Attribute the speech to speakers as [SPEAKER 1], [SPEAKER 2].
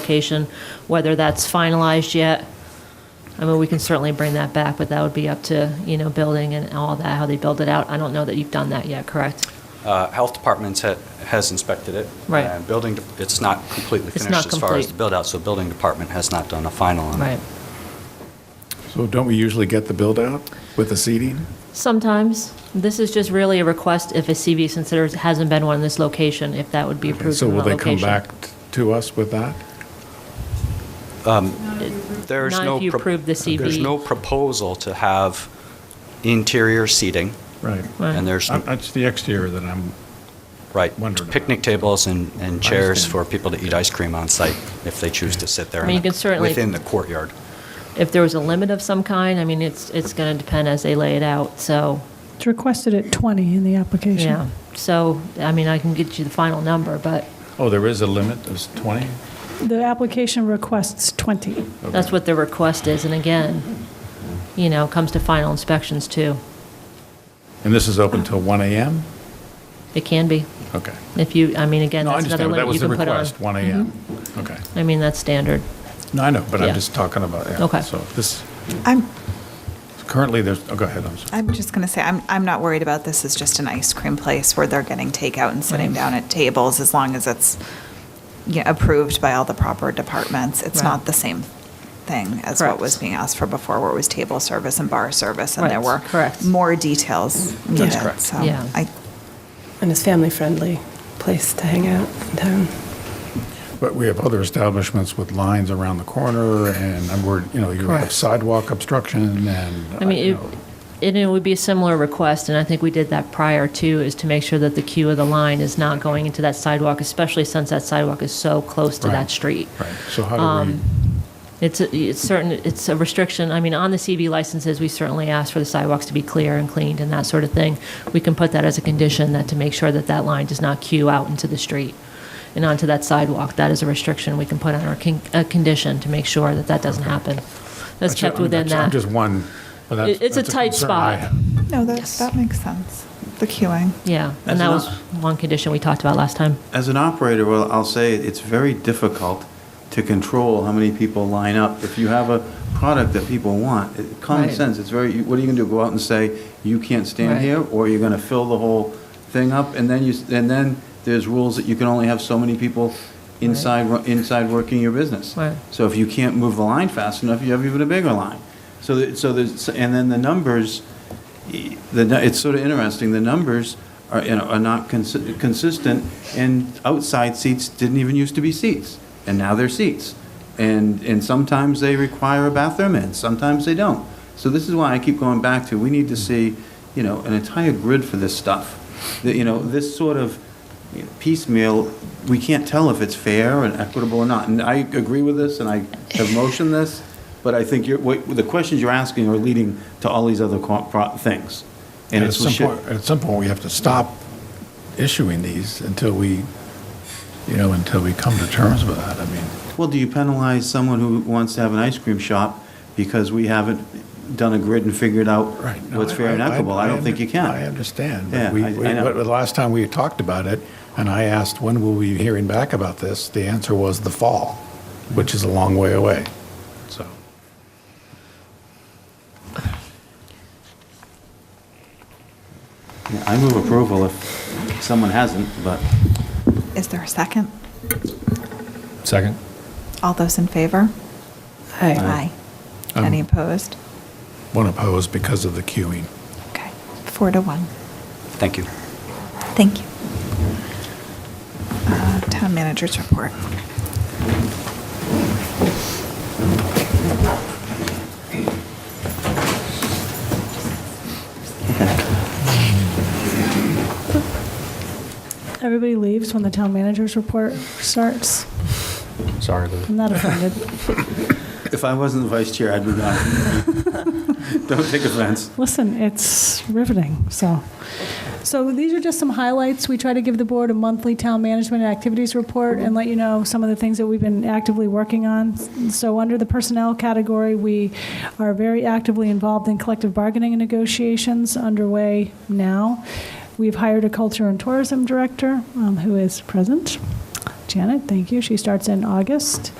[SPEAKER 1] location, whether that's finalized yet. I mean, we can certainly bring that back, but that would be up to, you know, building and all that, how they build it out. I don't know that you've done that yet, correct?
[SPEAKER 2] Uh, Health departments ha- has inspected it.
[SPEAKER 1] Right.
[SPEAKER 2] And building, de- it's not completely
[SPEAKER 1] It's
[SPEAKER 2] finished
[SPEAKER 1] not
[SPEAKER 2] as far as
[SPEAKER 1] complete.
[SPEAKER 2] the build-out, so building department has not done a final on it.
[SPEAKER 1] Right.
[SPEAKER 3] So don't we usually get the build-out with the seating?
[SPEAKER 1] Sometimes, this is just really a request if a CV considers, hasn't been one in this location, if that would be approved
[SPEAKER 3] So
[SPEAKER 1] in that
[SPEAKER 3] will they
[SPEAKER 1] location.
[SPEAKER 3] come back t- to us with that?
[SPEAKER 2] There's
[SPEAKER 1] Not
[SPEAKER 2] no
[SPEAKER 1] if you
[SPEAKER 2] pro-
[SPEAKER 1] approve the
[SPEAKER 2] There's
[SPEAKER 1] CV.
[SPEAKER 2] no proposal to have interior seating,
[SPEAKER 4] Right.
[SPEAKER 1] Right.
[SPEAKER 2] and there's,
[SPEAKER 4] I'm- It's the exterior that I'm,
[SPEAKER 2] right,
[SPEAKER 4] wondering about.
[SPEAKER 2] picnic tables and and chairs
[SPEAKER 4] understand.
[SPEAKER 2] for people to eat ice cream on site if they choose to sit there
[SPEAKER 1] I mean,
[SPEAKER 2] in
[SPEAKER 1] you
[SPEAKER 2] the-
[SPEAKER 1] can certainly-
[SPEAKER 2] within the courtyard.
[SPEAKER 1] If there was a limit of some kind, I mean, it's, it's going to depend as they lay it out, so,
[SPEAKER 5] It's requested at 20 in the application.
[SPEAKER 1] yeah. So, I mean, I can get you the final number, but
[SPEAKER 4] oh, there is a limit, it's 20?
[SPEAKER 5] The application requests 20.
[SPEAKER 1] that's what the request is, and again, you know, comes to final inspections too.
[SPEAKER 3] And this is open till 1 AM?
[SPEAKER 1] It can be,
[SPEAKER 3] Okay.
[SPEAKER 1] if you, I mean, again,
[SPEAKER 3] No, I
[SPEAKER 1] that's another
[SPEAKER 3] understand, but
[SPEAKER 1] limit
[SPEAKER 3] that
[SPEAKER 1] you
[SPEAKER 3] was the
[SPEAKER 1] can put on.
[SPEAKER 3] request, 1 AM. Okay.
[SPEAKER 1] I mean, that's standard.
[SPEAKER 3] No, I know, but
[SPEAKER 1] Yeah.
[SPEAKER 3] I'm just talking about,
[SPEAKER 1] Okay.
[SPEAKER 3] yeah, so this,
[SPEAKER 6] I'm,
[SPEAKER 3] currently, there's, oh, go ahead, I'm sorry.
[SPEAKER 6] I'm just going to say, I'm, I'm not worried about this as just an ice cream place where they're getting takeout and sitting down at tables, as long as it's, you know, approved by all the proper departments. It's
[SPEAKER 1] Right.
[SPEAKER 6] not the same thing as what was
[SPEAKER 1] Correct.
[SPEAKER 6] being asked for before, where it was table service and bar service, and there
[SPEAKER 1] Right,
[SPEAKER 6] were
[SPEAKER 1] correct.
[SPEAKER 6] more details needed.
[SPEAKER 7] correct.
[SPEAKER 6] So
[SPEAKER 1] Yeah.
[SPEAKER 6] I,
[SPEAKER 7] And it's family-friendly place to hang out um, in town.
[SPEAKER 3] But we have other establishments with lines around the corner, and I'm worried, you know, you have
[SPEAKER 1] Correct.
[SPEAKER 3] sidewalk obstruction and,
[SPEAKER 1] I
[SPEAKER 3] uh, you
[SPEAKER 1] mean,
[SPEAKER 3] know,
[SPEAKER 1] it- it, it would be a similar request, and I think we did that prior too, is to make sure that the queue of the line is not going into that sidewalk, especially since that sidewalk is so close to
[SPEAKER 3] Right.
[SPEAKER 1] that street. Um,
[SPEAKER 3] right, so how do we,
[SPEAKER 1] It's, a- it's certain, it's a restriction, I mean, on the CV licenses, we certainly ask for the sidewalks to be clear and cleaned and that sort of thing. We can put that as a condition, that to make sure that that line does not queue out into the street and onto that sidewalk. That is a restriction we can put on our con, a condition to make sure that that doesn't happen. That's kept
[SPEAKER 3] I'm-
[SPEAKER 1] within
[SPEAKER 3] I'm
[SPEAKER 1] that.
[SPEAKER 3] just one, but that's-
[SPEAKER 1] It- it's a
[SPEAKER 3] that's
[SPEAKER 1] tight
[SPEAKER 3] concern I
[SPEAKER 1] spot.
[SPEAKER 3] have.
[SPEAKER 6] no, that,
[SPEAKER 1] Yes.
[SPEAKER 6] that makes sense, the queuing.
[SPEAKER 1] Yeah, and
[SPEAKER 8] That's
[SPEAKER 1] that was
[SPEAKER 8] enough.
[SPEAKER 1] one condition we talked about last time.
[SPEAKER 8] As an operator, well, I'll say it's very difficult to control how many people line up. If you have a product that people want, it- common
[SPEAKER 1] Right.
[SPEAKER 8] sense, it's very, you- what are you going to do? Go out and say, you can't stand
[SPEAKER 1] Right.
[SPEAKER 8] here? Or you're going to fill the whole thing up? And then you, s- and then there's rules that you can only have so many people inside, wo- inside working your business.
[SPEAKER 1] Right.
[SPEAKER 8] So if you can't move the line fast enough, you have even a bigger line. So, that- so there's, and then the numbers, e- the, nu- it's sort of interesting, the numbers are, you know, are not consi- consistent, and outside seats didn't even used to be seats, and now they're seats. And, and sometimes they require a bathroom in, sometimes they don't. So this is why I keep going back to, we need to see, you know, an entire grid for this stuff. That, you know, this sort of you know, piecemeal, we can't tell if it's fair and equitable or not. And I agree with this, and I have motioned this, but I think you're, what, the questions you're asking are leading to all these other co- pro- things. And
[SPEAKER 3] And at
[SPEAKER 8] it's, we
[SPEAKER 3] some
[SPEAKER 8] should-
[SPEAKER 3] point, at some point, we have to stop issuing these until we, you know, until we come to terms with that. I mean,
[SPEAKER 8] well, do you penalize someone who wants to have an ice cream shop because we haven't done a grid and figured out
[SPEAKER 3] right. no,
[SPEAKER 8] what's fair and
[SPEAKER 3] I- I-
[SPEAKER 8] equitable? I don't
[SPEAKER 3] under-
[SPEAKER 8] think you can.
[SPEAKER 3] I understand.
[SPEAKER 8] Yeah,
[SPEAKER 3] But we,
[SPEAKER 8] I- I
[SPEAKER 3] we-
[SPEAKER 8] know.
[SPEAKER 3] but the last time we talked about it, and I asked, when will we be hearing back about this? The answer was the fall, which is a long way away, so.
[SPEAKER 8] Yeah, I move approval if someone hasn't, but
[SPEAKER 6] Is there a second?
[SPEAKER 4] Second.
[SPEAKER 6] All those in favor?
[SPEAKER 7] Hi.
[SPEAKER 3] Um,
[SPEAKER 6] Any opposed?
[SPEAKER 3] One opposed because of the queuing.
[SPEAKER 6] Okay, four to one.
[SPEAKER 2] Thank you.
[SPEAKER 6] Thank you. Uh, Town managers report.
[SPEAKER 5] Everybody leaves when the town manager's report starts.
[SPEAKER 4] Sorry, Lou.
[SPEAKER 5] I'm not offended.
[SPEAKER 8] if I wasn't the vice chair, I'd be gone. Don't take offense.
[SPEAKER 5] Listen, it's riveting, so. So these are just some highlights. We try to give the board a monthly town management activities report and let you know some of the things that we've been actively working on. So under the personnel category, we are very actively involved in collective bargaining and negotiations underway now. We've hired a culture and tourism director um, who is present. Janet, thank you. She starts in August.